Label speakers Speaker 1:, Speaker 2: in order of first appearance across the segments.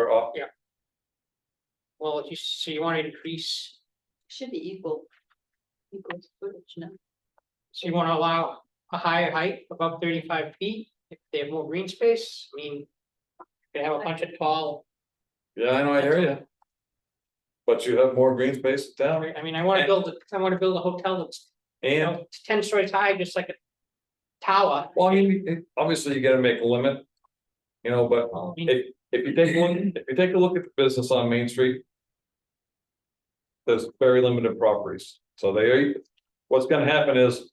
Speaker 1: uh,
Speaker 2: Well, if you, so you want to increase,
Speaker 3: Should be equal. Equal footage, no?
Speaker 2: so you want to allow a higher height above thirty-five feet? If they have more green space, I mean, you could have a bunch of tall,
Speaker 1: Yeah, I know, I hear you. But you have more green space in town
Speaker 2: I mean, I want to build, a- I want to build a hotel that's, you
Speaker 1: and,
Speaker 2: know, ten stories high, just like a tower.
Speaker 1: well, I mean, it- obviously you gotta make a limit. You know, but
Speaker 2: Well, I mean,
Speaker 1: if, if you take a look, if you take a look at the business on Main Street. There's very limited properties, so they, what's gonna happen is.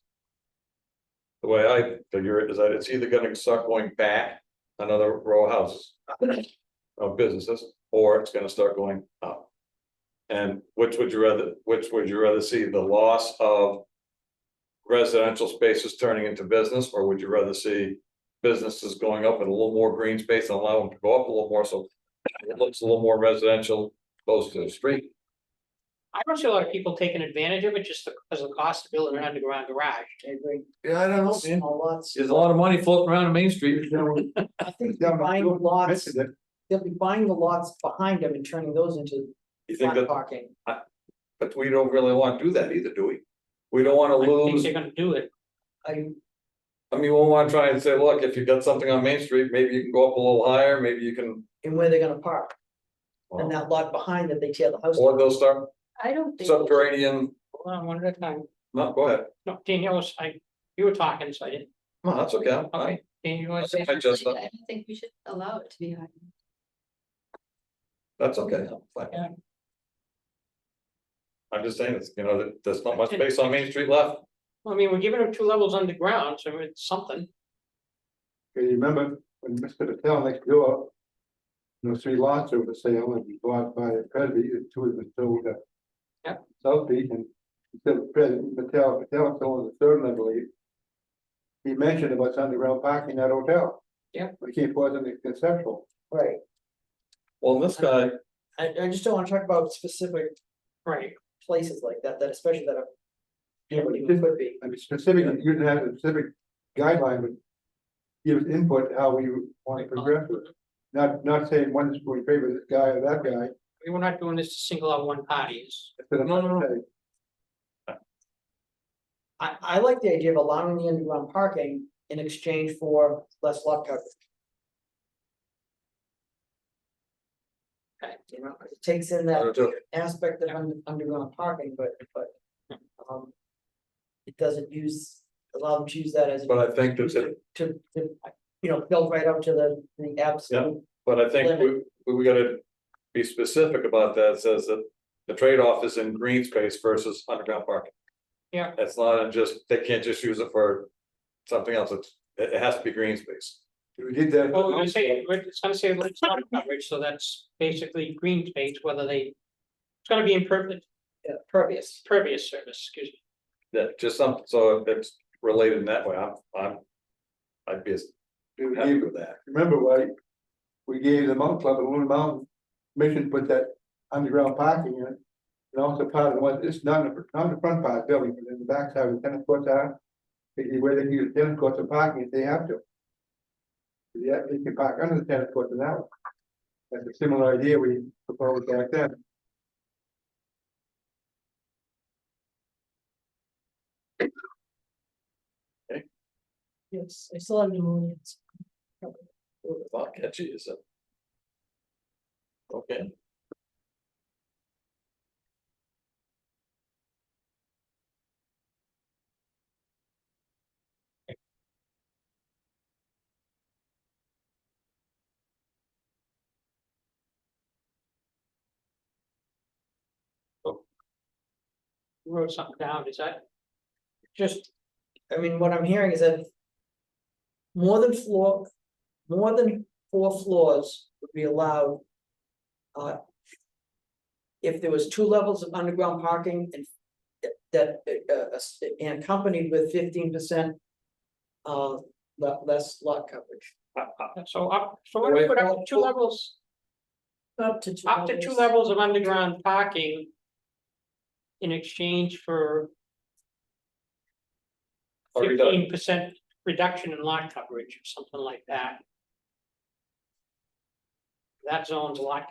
Speaker 1: The way I figure it is that it's either gonna start going back another row of houses. Of businesses, or it's gonna start going up. And which would you rather, which would you rather see, the loss of? Residential spaces turning into business, or would you rather see? businesses going up with a little more green space and allow them to go up a little more, so it looks a little more residential close to the street.
Speaker 2: I don't see a lot of people taking advantage of it just because of the cost of building an underground garage.
Speaker 4: I agree.
Speaker 1: Oh, Yeah, I don't
Speaker 4: Small lots.
Speaker 1: There's a lot of money floating around in Main Street.
Speaker 4: I think they're buying the lots,
Speaker 5: it.
Speaker 4: they'll be buying the lots behind them and turning those into
Speaker 1: You think
Speaker 4: flat
Speaker 1: that,
Speaker 4: parking.
Speaker 1: but we don't really want to do that either, do we? We don't want to
Speaker 2: I think
Speaker 1: lose,
Speaker 2: they're gonna do it.
Speaker 4: I,
Speaker 1: I mean, we want to try and say, look, if you've got something on Main Street, maybe you can go up a little higher, maybe you can.
Speaker 4: and where they're gonna park, and that lot behind that they tear the house.
Speaker 1: Or they'll start
Speaker 3: I don't think.
Speaker 1: subterranean,
Speaker 2: Hold on, one at a time.
Speaker 1: no, go ahead,
Speaker 2: No, Danielle was, I, you were talking, so I didn't.
Speaker 1: no, that's okay, I'm fine.
Speaker 2: Okay, Danielle, you wanna say
Speaker 1: I just,
Speaker 3: I don't think we should allow it to be high.
Speaker 1: that's okay, I'm fine.
Speaker 2: Yeah.
Speaker 1: I'm just saying, it's, you know, there- there's not much space on Main Street left.
Speaker 2: Well, I mean, we're giving them two levels underground, so it's something.
Speaker 5: And you remember when Mr. Patel next door. Those three lots over sale and he bought by a Presby, and two of them sold at.
Speaker 2: Yep.
Speaker 5: South Beach and instead of Presby, Patel, Patel sold the third one, I believe. He mentioned about underground parking at hotel.
Speaker 2: Yep.
Speaker 5: Which he wasn't conceptual.
Speaker 4: Right,
Speaker 1: Well, this guy,
Speaker 4: I, I just don't wanna talk about specific
Speaker 2: Right,
Speaker 4: places like that, that especially that are.
Speaker 5: Yeah, but it
Speaker 4: It could be,
Speaker 5: I mean, specific, you didn't have a specific guideline, but. Give us input how we want to progress with it. Not, not saying one is going to favor this guy or that guy.
Speaker 2: we were not doing this to single out one party. It's-
Speaker 5: instead of-
Speaker 1: No, no, no.
Speaker 4: I, I like the idea of allowing the underground parking in exchange for less lot coverage.
Speaker 2: Okay.
Speaker 4: You know, it takes in that
Speaker 1: I don't know.
Speaker 4: aspect of un- underground parking, but, but, um. It doesn't use, allow them to use that as. a-
Speaker 1: But I think that's it.
Speaker 4: To, to, you know, build right up to the, the absolute,
Speaker 1: But I think we, we- we gotta be specific about that, It says that the trade-off is in green space versus underground parking.
Speaker 2: Yeah.
Speaker 1: It's not in just, they can't just use it for something else, it's, it, it has to be green space.
Speaker 5: We did that.
Speaker 2: Well, we're
Speaker 1: Oh,
Speaker 2: gonna say, we're just gonna say it's not coverage, so that's basically green space, whether they. It's gonna be impervious,
Speaker 4: uh, pervious.
Speaker 2: pervious surface, excuse me.
Speaker 1: That, just some, so it's related in that way, I'm, I'm, I'd be
Speaker 5: We
Speaker 1: happy
Speaker 5: gave-
Speaker 1: with that.
Speaker 5: remember why we gave the mountain club and Loon Mountain mission to put that underground parking in. And also part of the one, it's not in the, not in the front part of the building, but in the back side where the tennis courts are. They can- where they can use tennis courts and parking if they have to. Yeah, they can park under the tennis courts and that one. That's a similar idea we proposed back then.
Speaker 4: Yes, I still have pneumonia.
Speaker 1: It's not catchy, is it? Okay.
Speaker 2: You Wrote something down, is that?
Speaker 4: just, I mean, what I'm hearing is that. More than floor, more than four floors would be allowed. Uh. If there was two levels of underground parking and that uh, uh s- and accompanied with fifteen percent. Uh, le- less lot coverage.
Speaker 2: So up, so we're gonna put up to two levels,
Speaker 4: Up to two.
Speaker 2: up to two levels of underground parking. In exchange for
Speaker 1: Are we done?
Speaker 2: fifteen percent reduction in lot coverage or something like that. That zone's lot